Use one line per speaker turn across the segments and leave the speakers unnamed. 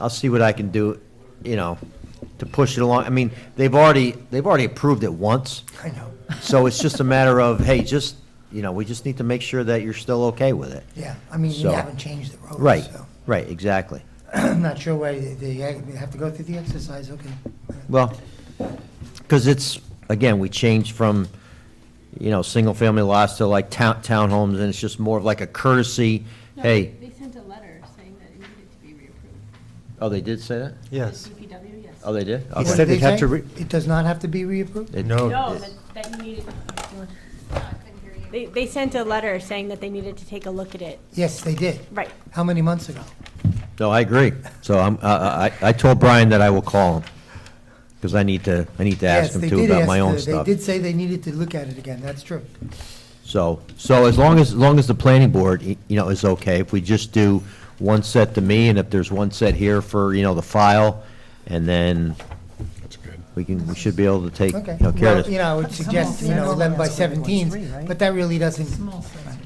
I'll see what I can do, you know, to push it along. I mean, they've already, they've already approved it once.
I know,
So it's just a matter of, hey, just, you know, we just need to make sure that you're still okay with it.
yeah, I mean, you
So-
haven't changed the road, so.
Right, right, exactly.
I'm not sure why they, they have to go through the exercise, okay.
Well, because it's, again, we changed from, you know, single-family lots to like town, townhomes, and it's just more of like a courtesy,
No,
hey,
They sent a letter saying that it needed to be reapproved.
oh, they did say that?
Yes.
The DPW, yes.
Oh, they did?
What
Okay.
said
did
it'd
they
have to
say?
re-
It does not have to be reapproved?
It-
No.
No, that, that you needed,
oh, They, they sent a letter saying that they needed to take a look at it.
Yes, they did.
Right.
How many months ago?
No, I agree. So I'm, I, I I told Brian that I will call him, because I need to, I need to ask
Yes,
him
they
too
did
about
ask
my own
the-
stuff.
They did say they needed to look at it again, that's true.
So, so as long as, as long as the planning board, y- you know, is okay, if we just do one set to me, and if there's one set here for, you know, the file, and then
That's good.
we can, we should be able to take,
Okay.
you know, care of
Well, you
this.
know, I would suggest, you know, eleven by seventeen, but that really doesn't,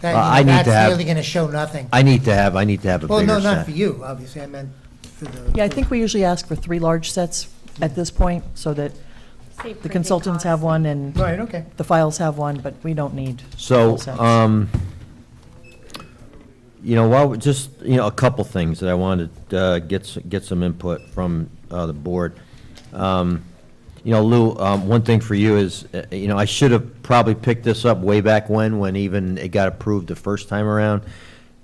Uh, I
that,
need to
you know, that's
have-
really gonna show nothing.
I need to have, I need to have a
Well, no,
bigger
not
set.
for you, obviously, I meant for the.
Yeah, I think we usually ask for three large sets at this point, so that
Save
the
printing
consultants have
costs.
one and
Right, okay.
the files have one, but we don't need.
So,
full sets.
um, you know, while, we- just, you know, a couple things that I wanted, uh, get, s- get some input from, uh, the board. Um, you know, Lou, um, one thing for you is, uh, you know, I should have probably picked this up way back when, when even it got approved the first time around,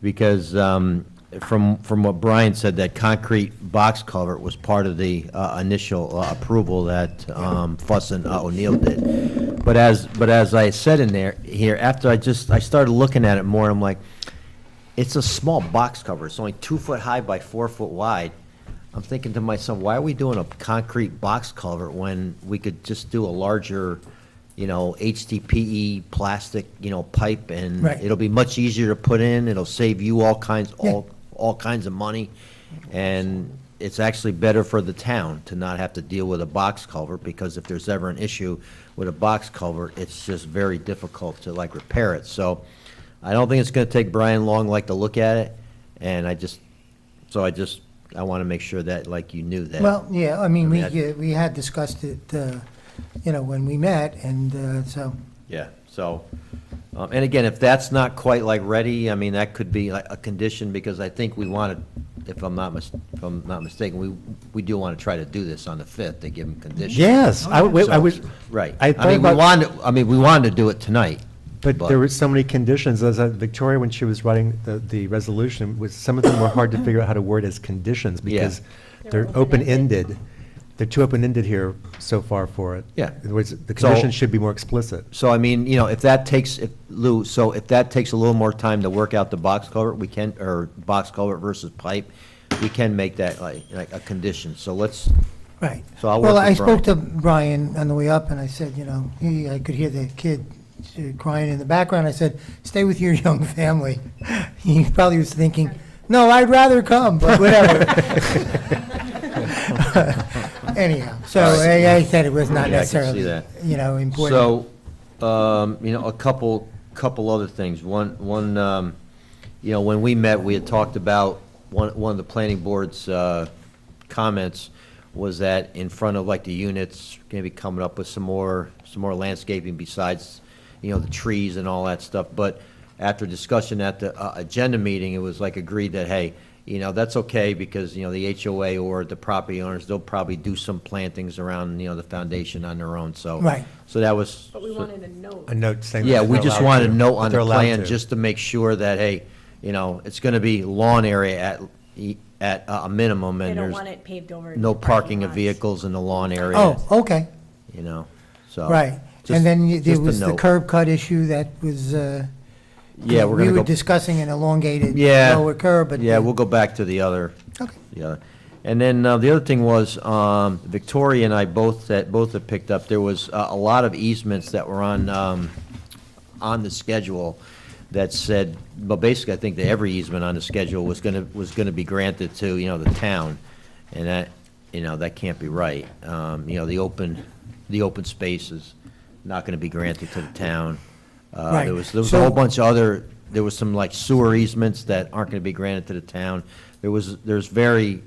because, um, from, from what Brian said, that concrete box culvert was part of the, uh, initial uh, approval that, um, Fuss and uh, O'Neill did. But as, but as I said in there, here, after I just, I started looking at it more, I'm like, it's a small box cover. It's only two foot high by four foot wide. I'm thinking to myself, why are we doing a concrete box culvert when we could just do a larger, you know, HDPE E plastic, you know, pipe and
Right.
it'll be much easier to put in. It'll save you all kinds,
Yeah.
all, all kinds of money. And it's actually better for the town to not have to deal with a box culvert because if there's ever an issue with a box culvert, it's just very difficult to like repair it. So I don't think it's gonna take Brian long like to look at it, and I just, so I just, I wanna make sure that like you knew that.
Well, yeah, I mean, we,
I mean,
uh, we had discussed it, uh, you know, when we met, and uh, so,
Yeah, so, um, and again, if that's not quite like ready, I mean, that could be like a condition, because I think we wanted, if I'm not mis, if I'm not mistaken, we, we do wanna try to do this on the fifth, to give them conditions.
Yes, I w- I
So,
was.
Right.
I
I
thought
mean, we
about,
wanted, I mean, we wanted to do it tonight.
but there were so many conditions, as uh, Victoria, when she was writing the, the resolution, was, some of them were hard to figure out how to word as conditions,
Yeah.
because
They're
they're open-ended. They're too open-ended here so far for it.
Yeah.
In other words, the
So-
conditions should be more explicit.
So I mean, you know, if that takes, if, Lou, so if that takes a little more time to work out the box culvert, we can, or box culvert versus pipe, we can make that like, like a condition, so let's,
right.
So I'll work
Well,
with
I spoke to
Brian.
Brian on the way up, and I said, you know, he, I could hear the kid uh, crying in the background. I said, stay with your young family. He probably was thinking, no, I'd rather come, but whatever. Anyhow, so
All right.
I, I said it was not
Yeah, I can see
necessarily,
that.
you know, important.
so, um, you know, a couple, couple other things. One, one, um, you know, when we met, we had talked about, one, one of the planning board's, uh, comments was that in front of like the units, gonna be coming up with some more, some more landscaping besides, you know, the trees and all that stuff. But after discussion at the, uh, agenda meeting, it was like agreed that, hey, you know, that's okay because, you know, the HOA or the property owners, they'll probably do some plantings around, you know, the foundation on their own, so.
Right.
So that was.
But we wanted a note.
A note saying. that
Yeah, we
they're
just
allowed
wanted a
to,
note
that
on
they're
the
allowed
plan,
to.
just to make sure that, hey, you know, it's gonna be lawn area at, e- at a a minimum,
They
and
don't
there's
want it paved over.
no
with
parking of
lots.
vehicles in the lawn area,
Oh, okay.
you know, so.
Right,
Oh, just-
and then you- there
just a
was the
note.
curb cut issue that was, uh,
Yeah, we're gonna
We
go.
were discussing an elongated
Yeah.
lower curb, but.
Yeah,
the-
we'll go back to the other.
Okay.
the other. And then uh, the other thing was, um, Victoria and I both, that both had picked up, there was uh, a lot of easements that were on, um, on the schedule that said, well, basically, I think that every easement on the schedule was gonna, was gonna be granted to, you know, the town. And that, you know, that can't be right. Um, You know, the open, the open space is not gonna be granted to the town. Uh, There
Right.
was, there was a whole
So-
bunch of other, there was some like sewer easements that aren't gonna be granted to the town. There was, there's very